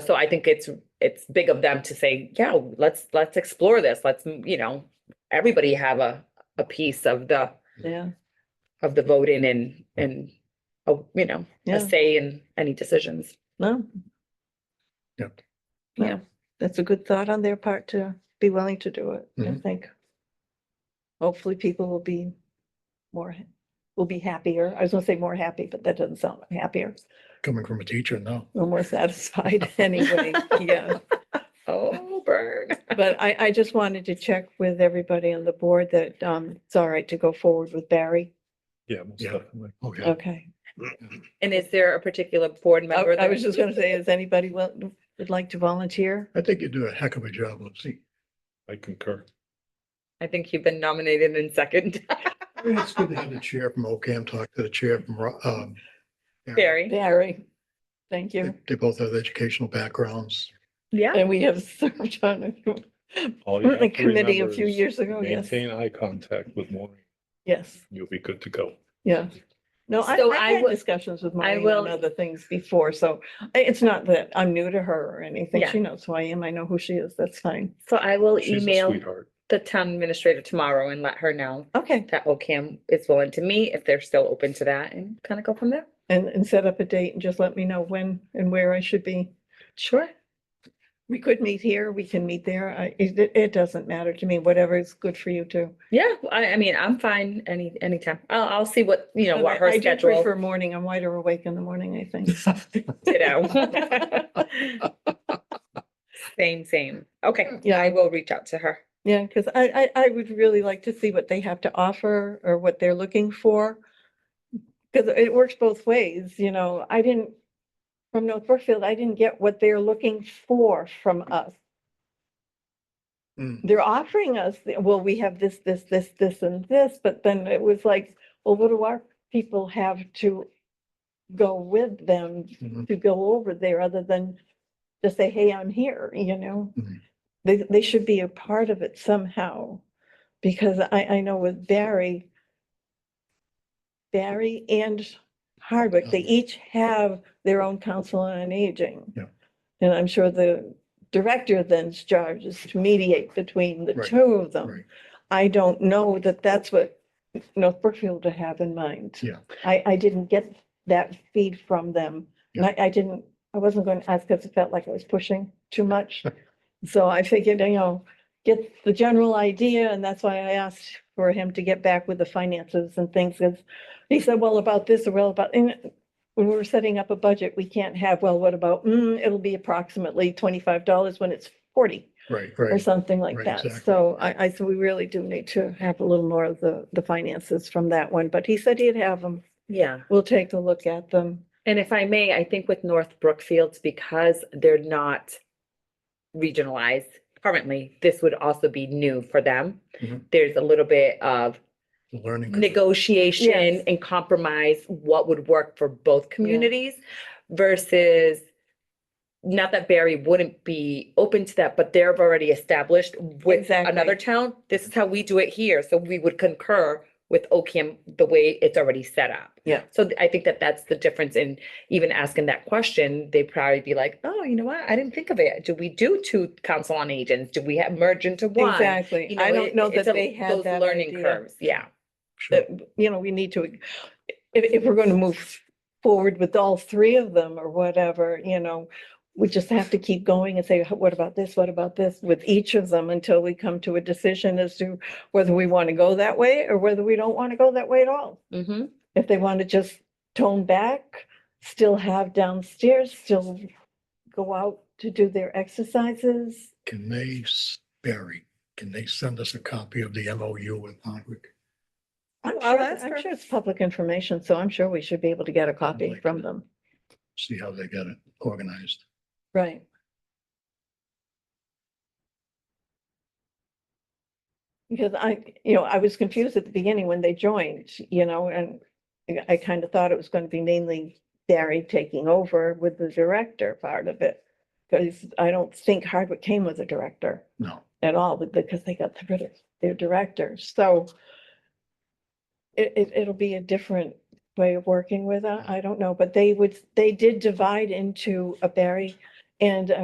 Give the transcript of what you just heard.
so I think it's, it's big of them to say, yeah, let's, let's explore this. Let's, you know, everybody have a, a piece of the, Yeah, of the voting and, and, oh, you know, Yeah. a say in any decisions. no. Yep. No, Yeah. That's a good thought on their part to be willing to do it, I Mhm. think. Hopefully people will be more, ha- will be happier. I was gonna say more happy, but that doesn't sound like happier. coming from a teacher, no. Or more satisfied anyway, yeah. Oh, burn. But I, I just wanted to check with everybody on the board that, um, it's all right to go forward with Barry. Yeah, most Yeah. definitely. Oh, yeah. Okay. And is there a particular board I member? I that- was just gonna say, is anybody will, would like to volunteer? I think you do a heck of a job, Lucy. I concur. I think you've been nominated in second, It's good to have the chair from OCAM talk to the chair from, Ro- um, Barry. Aaron. Barry, thank you. They they both have educational backgrounds. Yeah. And we have served on a- All you on a have to committee a remember few is years ago, yes, Maintain eye contact with Maureen. yes, You'll be good to go. yeah. No, I, So I've I had will- discussions with I Maureen on will- other things before, so I- it's not that I'm new to her or anything. Yeah. She knows who I am. I know who she is. That's fine. So I will She's a email sweetheart. the town administrator tomorrow and let her know Okay, that OCAM is willing to meet if they're still open to that and kind of go from there. and, and set up a date and just let me know when and where I should be. Sure. We could meet here, we can meet there. I, it, it doesn't matter to me, whatever is good for you too. Yeah, I, I mean, I'm fine any, anytime. I'll, I'll see what, you know, But what I- her I do schedule, Prefer morning. I'm wider awake in the morning, I think. you know. Same, same. Okay, Yeah. I will reach out to her. Yeah, because I, I, I would really like to see what they have to offer or what they're looking for. Because it works both ways, you know, I didn't, from North Brookfield, I didn't get what they're looking for from us. Mm. They're offering us, the- well, we have this, this, this, this, and this, but then it was like, well, what do our people have to go with them Mhm. to go over there other than just say, hey, I'm here, you know? Mhm. They, they should be a part of it somehow, because I, I know with Barry, Barry and Hardwick, they Um, each have their own council on aging. Yeah. And I'm sure the director then's charge is to mediate between the Right, two of them. Right. I don't know that that's what North Brookfield to have in mind. Yeah. I, I didn't get that feed from them. And I, I didn't, I wasn't going to ask because it felt like I was pushing too much. So I figured, you know, get the general idea and that's why I asked for him to get back with the finances and things. 'cause He said, well, about this or well, about, and when we're setting up a budget, we can't have, well, what about, mm, it'll be approximately twenty-five dollars when it's forty Right, or right. something like right, that. exactly. So I, I, so we really do need to have a little more of the, the finances from that one, but he said he'd have them. Yeah. We'll take a look at them. And if I may, I think with North Brookfields, because they're not regionalized currently, this would also be new for them. Mhm. There's a little bit of Learning. curve. negotiation Yes. and compromise, what would work for both communities versus not that Barry wouldn't be open to that, but they're already established with another Exactly. town. This is how we do it here. So we would concur with OCAM the way it's already set up. Yeah. So th- I think that that's the difference in even asking that question. They'd probably be like, oh, you know what? I didn't think of it. Do we do two council on agents? Do we have merge into one? You Exactly. I it- don't know that it's a- they had those that Learning idea. curves, yeah. Sure. That, you know, we need to, if, if we're going to move forward with all three of them or whatever, you know, we just have to keep going and say, what about this? What about this? With each of them until we come to a decision as to whether we want to go that way or whether we don't want to go that way at all. Mm-hmm. if they want to just tone back, still have downstairs, still go out to do their exercises. Can they, s- Barry, can they send us a copy of the MOU with Hardwick? I'm Oh, I'll sure, ask her. I'm sure it's public information, so I'm sure we should be able to get a copy Like from that. them. See how they get it organized. Right. Because I, you know, I was confused at the beginning when they joined, you know, and I- I kind of thought it was going to be mainly Barry taking over with the director part of it. Because I don't think Hardwick came with a director. No. at all with- because they got rid of their director. So it, it, it'll be a different way of working with, it. I don't know, but they would, they did divide into a Barry and a